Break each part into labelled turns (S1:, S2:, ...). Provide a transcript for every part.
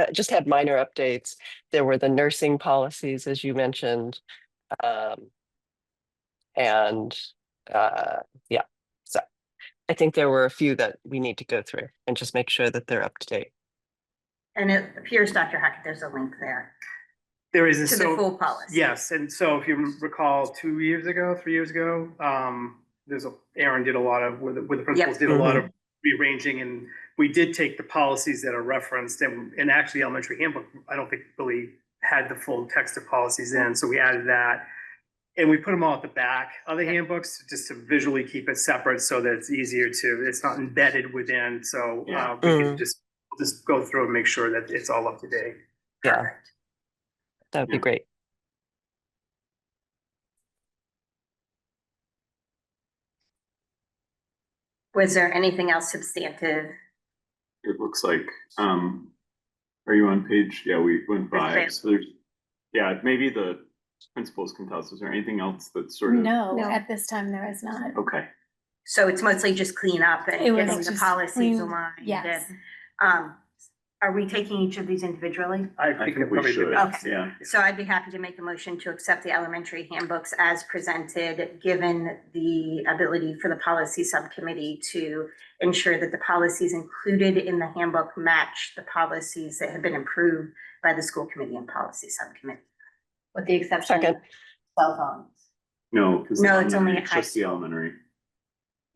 S1: uh, just had minor updates. There were the nursing policies, as you mentioned. Um, and, uh, yeah, so I think there were a few that we need to go through and just make sure that they're up to date.
S2: And it appears, Dr. Hackett, there's a link there
S3: There is, and
S2: to the
S3: so,
S2: full policy.
S3: yes, and so if you recall, two years ago, three years ago, um, there's a, Aaron did a lot of, with, the- with the principals, did a lot of
S4: Mm-hmm.
S3: rearranging, and we did take the policies that are referenced, and, and actually elementary handbook, I don't think really had the full text of policies in, so we added that. And we put them all at the back of the handbooks, just to visually keep it separate, so that it's easier to, it's not embedded within, so, uh,
S2: Yeah.
S3: we can
S4: Mm-hmm.
S1: Mm.
S3: just, just go through and make sure that it's all up to date.
S1: Yeah,
S2: Perfect.
S1: that would be
S3: Yeah.
S1: great.
S2: Was there anything else substantive?
S4: It looks like, um, are you on page, yeah, we went by,
S2: Perfect.
S4: so there's, yeah, maybe the principals can tell us, is there anything else that's sort of?
S5: No,
S2: No.
S5: at this time there is not.
S4: Okay,
S2: So it's mostly just clean up
S5: It
S2: and
S5: was
S2: getting the
S5: just
S2: policies
S5: clean-
S2: aligned.
S5: Yes.
S2: and, Um, are we taking each of these individually?
S4: I think we
S3: probably did
S4: should,
S3: that.
S2: Okay.
S4: yeah,
S2: So I'd be happy to make a motion to accept the elementary handbooks as presented, given the ability for the policy subcommittee to ensure that the policies included in the handbook match the policies that have been approved by the school committee and policy subcommittee. With the exception of
S1: Second.
S2: cell phones.
S4: no, because.
S2: No, it's only high
S4: Just the elementary,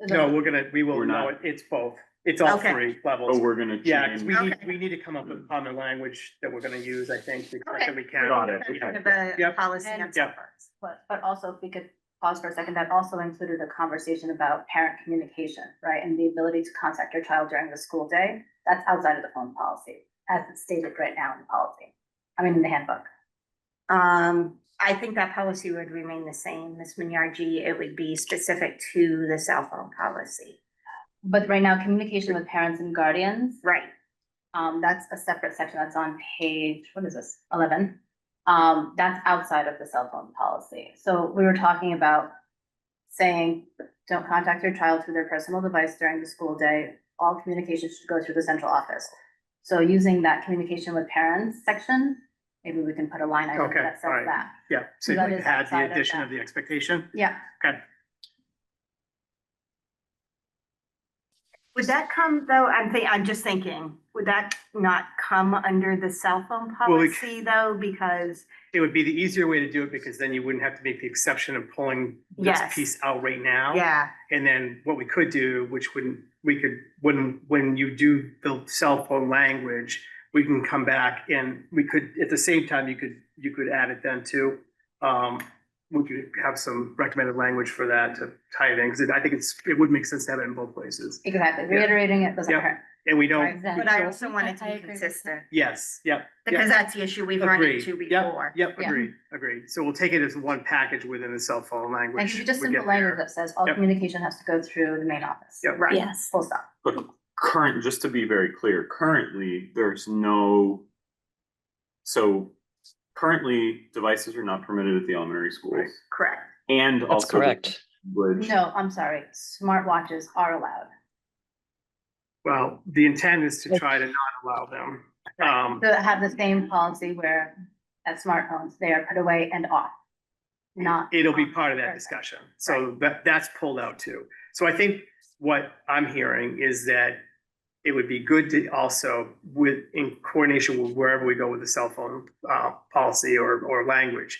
S3: No, we're gonna, we will,
S4: We're
S3: no,
S4: not.
S3: it- it's both. It's all
S2: Okay.
S3: three levels.
S4: oh, we're gonna change.
S3: Yeah, 'cause we need,
S2: Okay.
S3: we need to come up with common language that we're gonna use, I think, to
S2: Okay.
S3: that we can.
S4: Got it.
S2: Kind of
S3: Yeah.
S2: a policy on
S6: And-
S2: cell
S3: Yeah.
S2: phones.
S6: But, but also if we could pause for a second, that also included a conversation about parent communication, right? And the ability to contact your child during the school day, that's outside of the phone policy, as it's stated right now in the policy. I mean, in the handbook.
S2: Um, I think that policy would remain the same, Ms. Minyarji, it would be specific to the cell phone policy.
S6: But right now, communication with parents and guardians,
S2: Right,
S6: um, that's a separate section that's on page, what is this, eleven? Um, that's outside of the cell phone policy. So we were talking about saying, don't contact your child through their personal device during the school day. All communication should go through the central office. So using that communication with parents section, maybe we can put a line item
S3: Okay,
S6: that says
S3: alright.
S6: that.
S3: Yeah, so you
S6: That is
S3: had
S6: outside
S3: the
S6: of
S3: addition
S6: that.
S3: of the expectation.
S6: Yeah,
S3: Okay,
S2: would that come though, I'm think, I'm just thinking, would that not come under the cell phone
S3: Well, we-
S2: policy though, because?
S3: it would be the easier way to do it because then you wouldn't have to make the exception of pulling this
S2: Yes.
S3: piece out right now.
S2: Yeah,
S3: And then what we could do, which wouldn't, we could, when, when you do the cell phone language, we can come back and we could, at the same time, you could, you could add it then too. Um, would you have some recommended language for that to tie it in? Because I think it's, it would make sense to have it in both places.
S6: exactly.
S3: Yeah.
S6: Reiterating it doesn't
S3: Yeah.
S6: hurt.
S3: And we
S6: Right,
S3: don't,
S6: then.
S2: but I also want
S5: I-
S2: it to
S5: I
S2: be
S5: agree with
S2: consistent,
S3: yes, yep,
S2: because that's the issue we've run
S3: agreed.
S2: into
S3: Yep,
S2: before.
S3: yep,
S6: Yeah.
S3: agreed, agreed. So we'll take it as one package within the cell phone language.
S6: Like, if you just
S3: would get
S6: simple language
S3: there.
S6: that says all
S3: Yep.
S6: communication has to go through the main office.
S3: Yep.
S2: Right.
S5: Yes.
S6: Full stop.
S4: But current, just to be very clear, currently, there's no. So currently, devices are not permitted at the elementary schools
S2: Correct,
S4: and also.
S1: That's
S4: the
S1: correct.
S4: language-
S6: No, I'm sorry, smartwatches are allowed.
S3: Well, the intent is to try to not allow them. Um,
S6: So have the same policy where at smartphones, they are put away and off, not.
S3: It'll be
S6: on.
S3: part of that
S6: Perfect.
S3: discussion. So that, that's pulled out too. So I think what I'm hearing is that it would be good to also with, in coordination with wherever we go with the cell phone, uh, policy or, or language,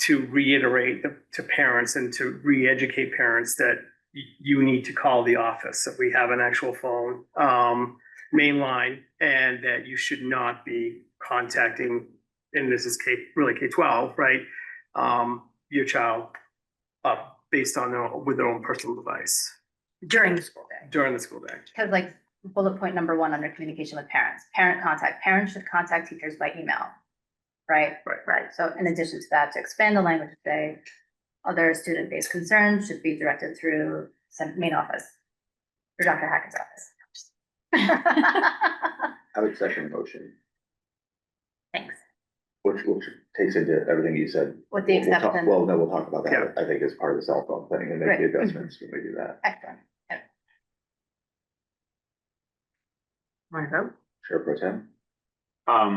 S3: to reiterate the- to parents and to re-educate parents that y- you need to call the office if we have an actual phone, um, main line, and that you should not be contacting, and this is K, really K twelve, right? um, your child up based on their, with their own personal device
S2: during the school day.
S3: during the school day.
S6: Because like bullet point number one under communication with parents, parent contact, parents should contact teachers by email. Right?
S3: Right.
S6: Right. So in addition to that, to expand the language, they, other student-based concerns should be directed through some main office. Or Dr. Hackett's office.
S7: I would second the motion,
S2: Thanks.
S7: which, which takes into everything you said.
S6: With the
S7: We'll talk-
S6: exception.
S7: Well, no, we'll talk about
S3: Yeah.
S7: that, I think, as part of the cell phone thing and make
S6: Right. Mm-hmm.
S7: the adjustments when we do that.
S6: Excellent.
S2: Want to vote?
S7: Chair Pro Tem,
S4: Um,